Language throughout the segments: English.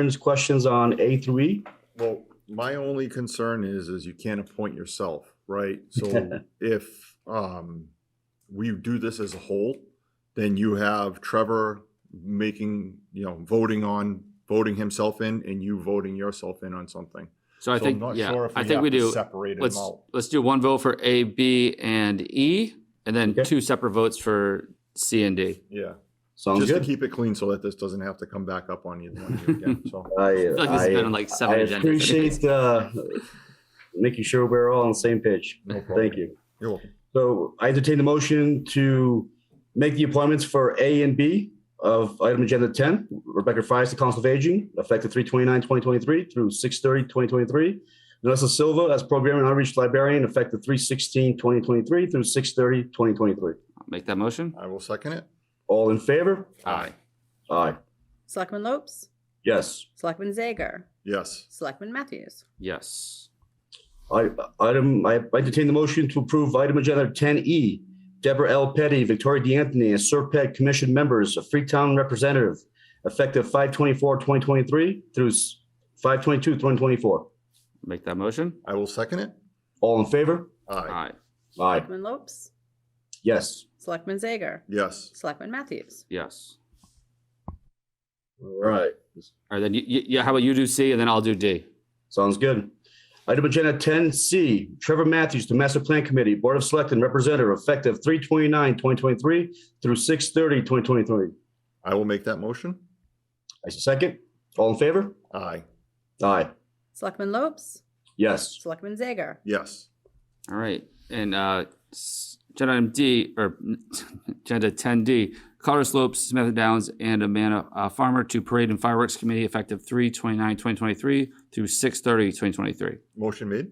concerns, questions on A through E? Well, my only concern is, is you can't appoint yourself, right? So if, um, we do this as a whole, then you have Trevor making, you know, voting on, voting himself in and you voting yourself in on something. So So I I'm think, not sure yeah, if I think have we to do, Separate them let's, out. let's do one vote for A, B, and E, and then Okay. two separate votes for C and D. Yeah, Sounds just to good. keep it clean so that this doesn't have to come back up on you one of you again, so. I, I feel like this has been on like I seven agendas. appreciate, uh, making sure we're all on the same page. no problem. Thank you. You're welcome. So I entertain the motion to make the appointments for A and B of item agenda ten. Rebecca Fries to Council of Aging, effective 2023 through 2023. Vanessa Silva as Program and Outreach Librarian, effective 2023 through 2023. Make that motion? I will second it. All in favor? Aye. Aye. Selectman Lopes, Yes. Selectman Zager, Yes, Selectman Matthews, Yes. I, item, I I entertain the motion to approve item agenda ten E. Deborah L. Petty, Victoria DeAnthony, as Serpent Commission members, a Freetown representative, effective 2023 through 2024. Make that motion? I will second it. All in favor? Aye, Aye. Aye. Selectman Lopes, Yes. Selectman Zager, yes, Selectman Matthews. Yes. All right. All right, then, you- you- yeah, how about you do C and then I'll do D? Sounds good. Item agenda ten C, Trevor Matthews to Master Plan Committee, Board of Selectmen Representative, effective 2023 through 2023. I will make that motion. I second. All in favor? Aye, Aye. Selectman Lopes, Yes. Selectman Zager, yes, All right, and uh, s- agenda item D, or agenda ten D, Colorado Slopes, Smith Downs, and Amana uh, Farmer to Parade and Fireworks Committee effective 2023 through 2023. motion made.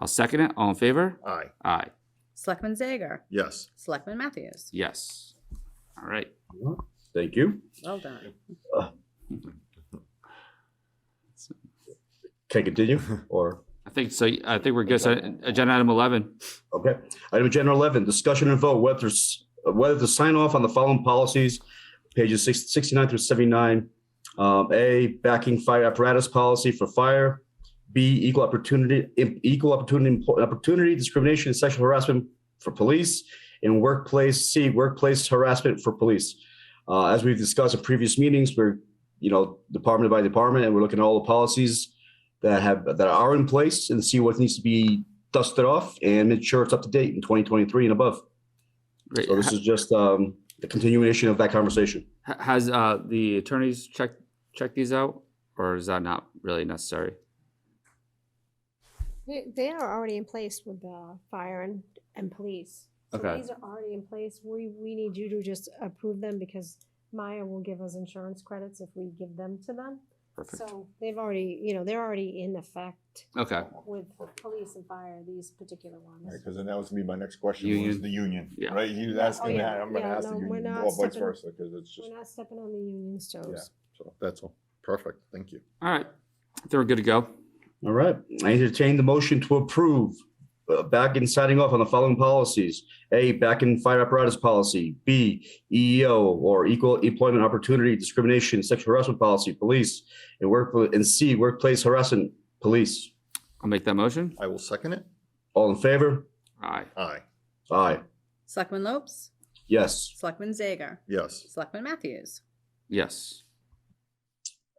I'll second it. All in favor? Aye, Aye. Selectman Zager, yes, Selectman Matthews. Yes. All right. Thank you. Well done. Can I continue or? I think so. I think we're good. So agenda item eleven. Okay. Item agenda eleven, discussion and vote whether, s- whether to sign off on the following policies, pages six- 69 through seventy-nine. Um, A, backing fire apparatus policy for fire. B, equal opportunity, im- equal opportunity, opportunity discrimination and sexual harassment for police. And workplace, C, workplace harassment for police. Uh, as we've discussed in previous meetings, we're, you know, department by department, and we're looking at all the policies that have, that are in place and see what needs to be dust it off and make sure it's up to date in 2023 and above. Great. So this is just um, the continuation of that conversation. Ha- Has uh, the attorneys checked checked these out, or is that not really necessary? They, they are already in place with the fire and, and police. So Okay. These are already in place. We, we need you to just approve them because Maya will give us insurance credits if we give them to them. Perfect. So they've already, you know, they're already in effect Okay. with police and fire, these particular ones. because then that was gonna be my next question, was Union. the union, Yeah. right? You Yeah. asked Oh, me that, yeah. I'm gonna Yeah, ask the no, we're union, or not vice stepping- versa, because it's just, We're not stepping on the union toes. so, that's all, perfect, thank you. All right. I think we're good to go. All right. I entertain the motion to approve uh, back in signing off on the following policies. A, back in fire apparatus policy. B, EEO or equal employment opportunity discrimination, sexual harassment policy, police and work and C, workplace harassment, police. I'll make that motion. I will second it, All in favor? Aye. aye, Aye. Selectman Lopes, Yes. Selectman Zager, yes, Selectman Matthews. Yes.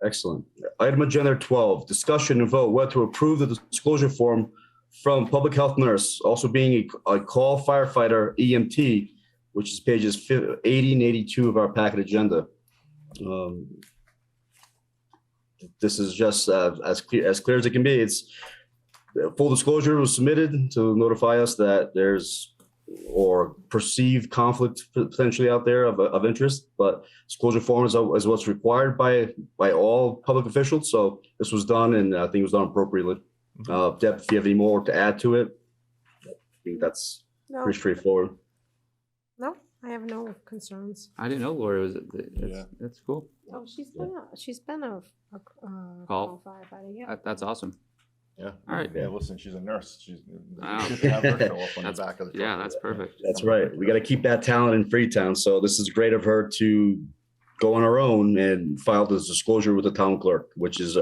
Excellent. Item agenda twelve, discussion and vote whether to approve the disclosure form from public health nurse, also being a, a call firefighter EMT, which is pages fif- eighty and eighty-two of our packet agenda. Um, This is just uh, as clear, as clear as it can be. It's uh, full disclosure was submitted to notify us that there's or perceived conflict potentially out there of, of interest, but disclosure form is, is what's required by by all public officials. So this was done and I think it was done appropriately. Uh, Deb, if you have any more to add to it, I think that's No, pretty straightforward. no, I have no concerns. I didn't know Lori was. That's, Yeah. that's cool. Oh, she's Yeah. been, a she's been a, a, uh, Call. firefighter, yeah. That, that's awesome. yeah. All right. Yeah, listen, she's a nurse, she's. Wow. you should have her show up on the That's- back of the truck yeah, for that's that. perfect. That's right. We got to keep that talent in Freetown. So this is great of her to go on our own and file this disclosure with the town clerk, which is